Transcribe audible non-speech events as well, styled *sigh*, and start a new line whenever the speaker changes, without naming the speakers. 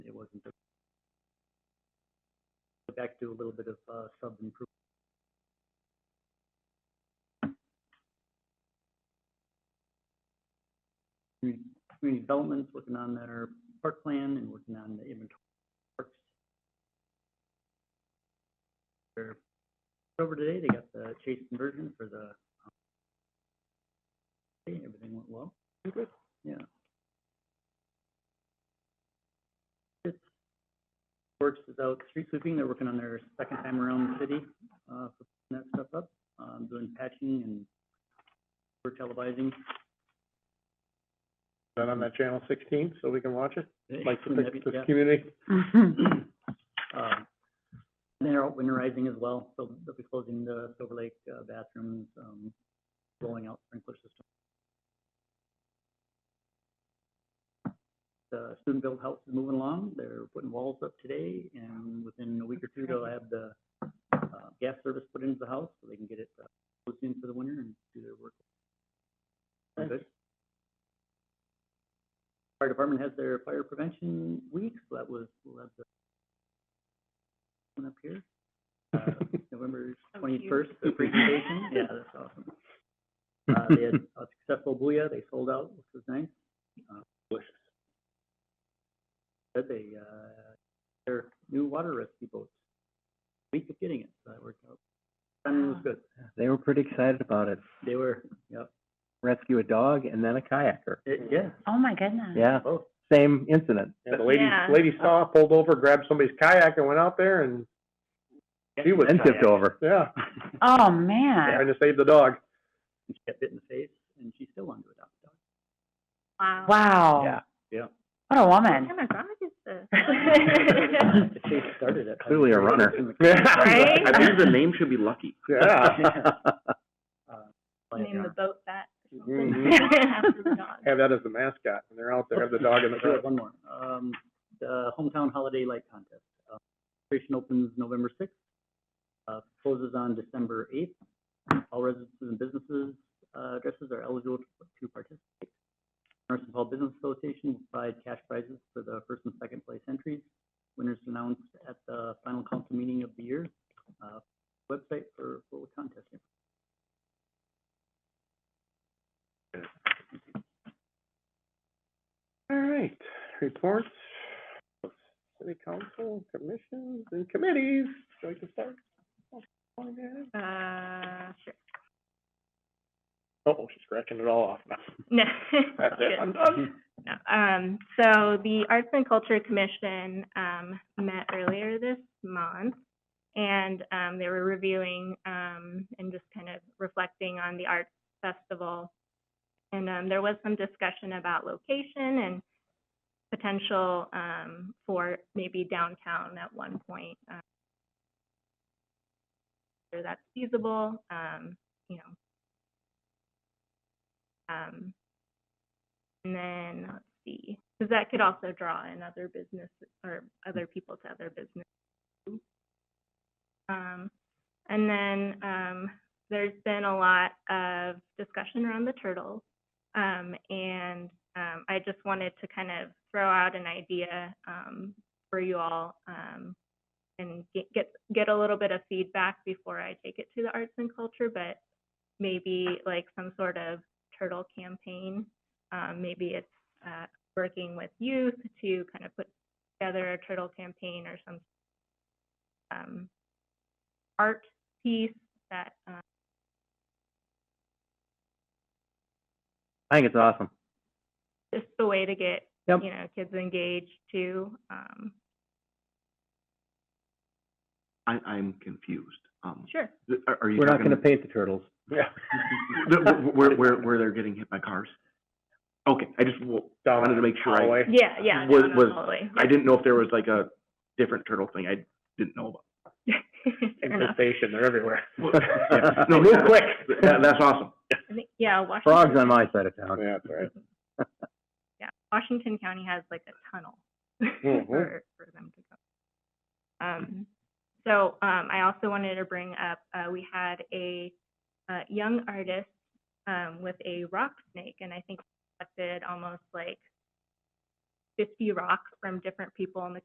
go back to a little bit of, uh, sub improvement. Community community developments, working on their park plan and working on the inventory of parks. They're over today, they got the Chase conversion for the, um, hey, everything went well. Good. Yeah. It's, Works is out street sweeping, they're working on their second time around the city, uh, for putting that stuff up, um, doing patching and we're televising.
That on that channel sixteen, so we can watch it, like the,
Yeah.
the community? *laughs*
Um, and They're out winterizing as well, so they'll be closing the Silver Lake uh, bathrooms, um, rolling out sprinkler system. The student built house is moving along, they're putting walls up today, and within a week or two, they'll have the, uh, gas service put into the house, so they can get it, uh, closed in for the winter and do their work. Very good. Fire department has their fire prevention week, so that was, we'll have the one up here,
*laughs*
uh, November
*laughs* Oh, cute.
twenty-first, the presentation, yeah, that's awesome.
*laughs*
Uh, they had a successful booyah, they sold out, which was nice. Uh, Said they, uh, their new water rescue boats, week of getting it, so that worked out. Timing was
Wow.
good,
They were pretty excited about it.
they were, yep,
Rescue a dog and then a kayaker.
It- yeah,
Oh, my
Hmm.
goodness.
Yeah,
both,
same incident.
And the lady,
Yeah.
lady saw, pulled over, grabbed somebody's kayak and went out there and she was,
Then tipped over.
yeah,
Oh, man.
trying to save the dog.
and *laughs* she got bit in the face, and she still wanted to adopt a dog.
Wow.
Wow.
Yeah, *laughs*
yeah.
What a
What
woman.
kind of dog is this?
*laughs*
The
*laughs*
chase started at.
Clearly
*laughs*
a runner. *laughs*
Right?
I believe the name should be Lucky.
Yeah,
*laughs* Uh,
Name the *laughs* boat that. or *laughs*
Mhm.
something. After
*laughs*
the dog.
have that as the mascot, when they're out there, have the dog
*laughs*
in the
I do have
*laughs*
truck.
One more. Um, the hometown holiday light contest. Uh, Registration opens November sixth, uh, closes on December eighth. All residents and businesses, uh, addresses are eligible to- to participate. Emerson Hall Business Association will provide cash prizes for the first and second place entries. Winners announced at the final council meeting of the year. Uh, website for, for the contest.
All right, reports, of city council, commissions, and committees, so we can start.
Uh, sure. *laughs*
Oh, she's scratching it all off now.
No.
That's
Good.
it, I'm done.
*laughs*
No. Um, so the Arts and Culture Commission, um, met earlier this month. And, um, they were reviewing, um, and just kind of reflecting on the arts festival. And, um, there was some discussion about location and potential, um, for maybe downtown at one point. um, Whether that's feasible, um, you know. Um, and then, let's see, because that could also draw in other business or other people to other business. too. Um, and then, um, there's been a lot of discussion around the turtles. Um, and, um, I just wanted to kind of throw out an idea, um, for you all, um, and get, get, get a little bit of feedback before I take it to the arts and culture, but maybe like some sort of turtle campaign um, maybe it's uh, working with youth to kind of put together a turtle campaign or some um, art piece that um,
I think it's awesome.
just a way to get
Yep.
you know kids engaged too. Um,
I, I'm confused. Um,
sure.
th- are, are you
We're not
talking?
gonna paint the turtles.
Yeah.
th- wh- Where, where, where they're getting hit by cars? Okay, I just w-
Down
wanted to make sure I,
hallway.
Yeah, yeah.
Was-
no, no,
was-
totally.
I didn't know if there was like a different turtle thing I didn't
*laughs*
know about.
*laughs* Fair enough.
infestation, they're everywhere. *laughs*
Yeah. No, move quick. That, that's awesome.
I think- yeah, Washington.
Frogs on my side of town.
Yeah, that's right.
yeah, Washington County has like a tunnel *laughs*
Mhm.
for, for them to go. Um, so, um, I also wanted to bring up, uh, we had a, uh, young artist, um, with a rock snake, and I think collected almost like fifty rocks from different people in the